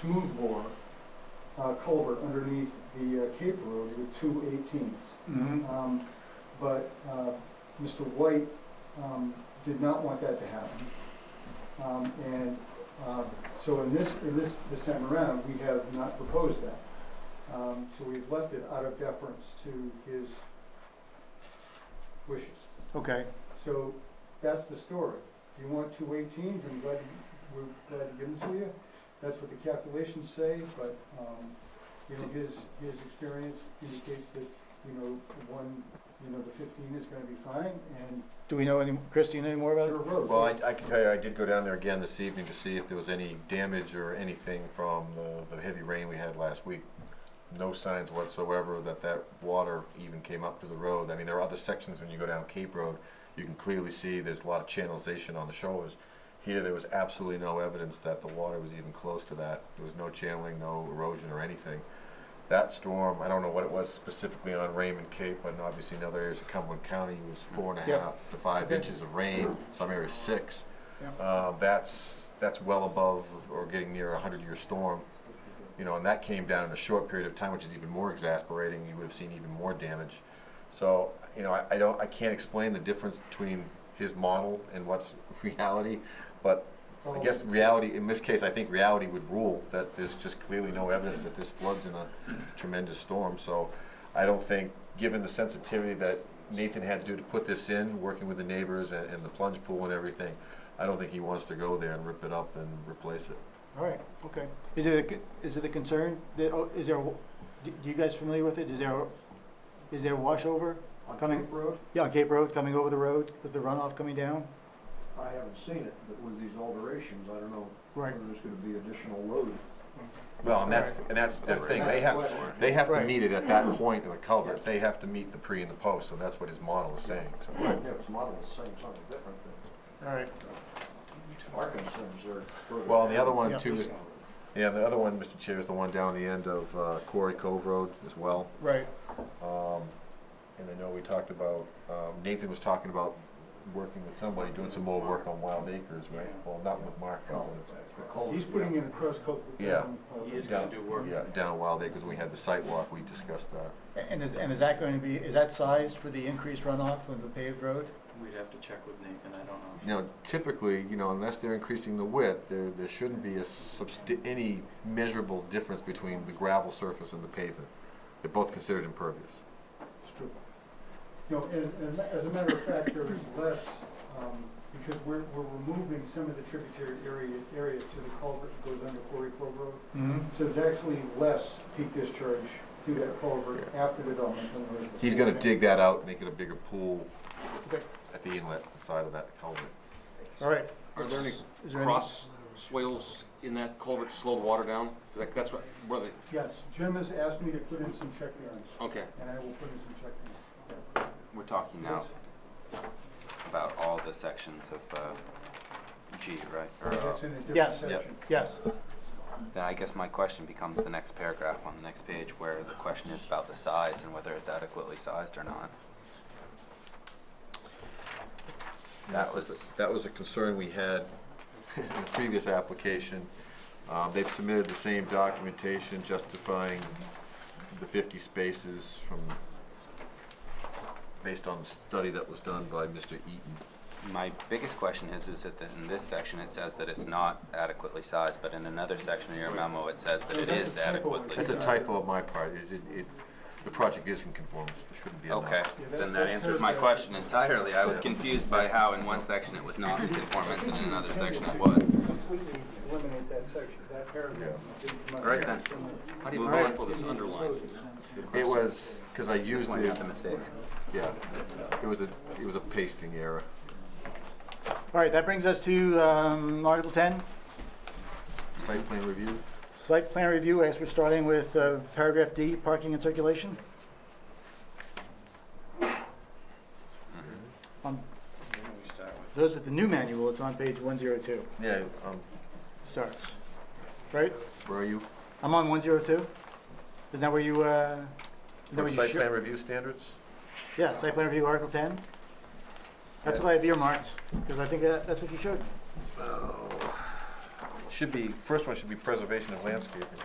smooth bore uh, culvert underneath the uh, Cape Road with two eighteens. Mhm. Um, But uh, Mr. White um, did not want that to happen. Um, And uh, so in this, in this, this time around, we have not proposed that. Um, So we've left it out of deference to his wishes. Okay, So that's the story. You want two eighteens, I'm glad, to- we're glad to give them to you. That's what the calculations say, but, um, you know, his, his experience indicates that, you know, one, you know, the fifteen is gonna be fine and do we know any, Christine, any more about Sugar it? Road. Well, I, I can tell you, I did go down there again this evening to see if there was any damage or anything from the, the heavy rain we had last week. No signs whatsoever that that water even came up to the road. I mean, there are other sections when you go down Cape Road, you can clearly see there's a lot of channelization on the shoulders. Here, there was absolutely no evidence that the water was even close to that. There was no channeling, no erosion or anything. That storm, I don't know what it was specifically on Raymond Cape, but obviously in other areas of Cumberland County, it was four and a Yep. half to five Okay. inches of rain, some areas six. Yep. Uh, That's, that's well above or getting near a hundred-year storm. You know, and that came down in a short period of time, which is even more exasperating. You would have seen even more damage. So, you know, I, I don't, I can't explain the difference between his model and what's reality, but Oh, I guess reality, in this case, I think reality would rule that there's just clearly no evidence that this floods in a tremendous storm, so I don't think, given the sensitivity that Nathan had to do to put this in, working with the neighbors and, and the plunge pool and everything, I don't think he wants to go there and rip it up and replace it. All right, okay. Is it, a c- is it a concern that, oh, is there, do do you guys familiar with it? Is there, is there washover On coming? Cape Road, Yeah, on Cape Road, coming over the road with the runoff coming down? I haven't seen it, but with these alterations, I don't know Right. whether there's gonna be additional load. Well, and that's, and that's the thing, they have, they have to Right. meet it at that point of the culvert, they have to meet the pre and the post, so that's what his model is saying, so. Yeah, it's modeled the same, something different, but All right. our concerns are further. Well, the down. other one Yeah. too is, yeah, the other one, Mr. Chair, is the one down the end of uh, Quarry Cove Road as well. Right. Um, And I know we talked about, um, Nathan was talking about working with somebody, doing some more work on Wild Acres, right? Well, not with Mark, but The with. culvert, He's putting in a cross culvert. Yeah. um, uh, He is gonna do work. Yeah, down Wild Acres, we had the site walk, we discussed that. And is, and is that going to be, is that sized for the increased runoff of the paved road? We'd have to check with Nathan, I don't You know. know, typically, you know, unless they're increasing the width, there, there shouldn't be a subst- any measurable difference between the gravel surface and the pavement. They're both considered impervious. It's true. No, and, and as a matter of fact, there is less, um, because we're, we're removing some of the tributary area, area to the culvert that goes under Quarry Cove Road. Mm-hmm. So there's actually less peak discharge through that culvert after development than there is. He's gonna dig that out, make it a bigger pool Okay. at the inlet side of that culvert. All right. Are there any Is there any- cross swales in that culvert to slow the water down? Like, that's what, where they, Yes, Jim has asked me to put in some check bearings, okay, and I will put in some check bearings. We're talking now about all the sections of uh, G, right? Or, uh, That's in a different Yes. section. Yes. Then I guess my question becomes the next paragraph on the next page where the question is about the size and whether it's adequately sized or not. That was, That was a concern we had in the previous application. Uh, They've submitted the same documentation justifying the 50 spaces from, based on the study that was done by Mr. Eaton. my biggest question is, is that in this section it says that it's not adequately sized, but in another section of your memo, it says that it is adequately That's a sized. typo on my part. It- it- it- The project is in conformance. There shouldn't be a... Okay, then that answers my question entirely. I was confused by how in one section it was not in conformance and in another section it was. Completely eliminate that section, that paragraph. Right then. how do you Alright. tackle this underline? It was, because I used Point out the the, mistake. yeah, it was a, it was a pasting error. All right, that brings us to um, Article 10, Site plan review? Site Plan Review. I guess we're starting with uh, paragraph D, parking and circulation. On Why don't we start with Those with the new manual, it's on page 102, Yeah, um, starts, right? where are you? I'm on 102? Isn't that where you, uh? isn't that where From you Site share- plan review standards? Yeah, site plan review, Article 10. That's Yeah. what I have earmarked, because I think that- that's what you showed. Oh. should be, first one should be preservation of landscaping.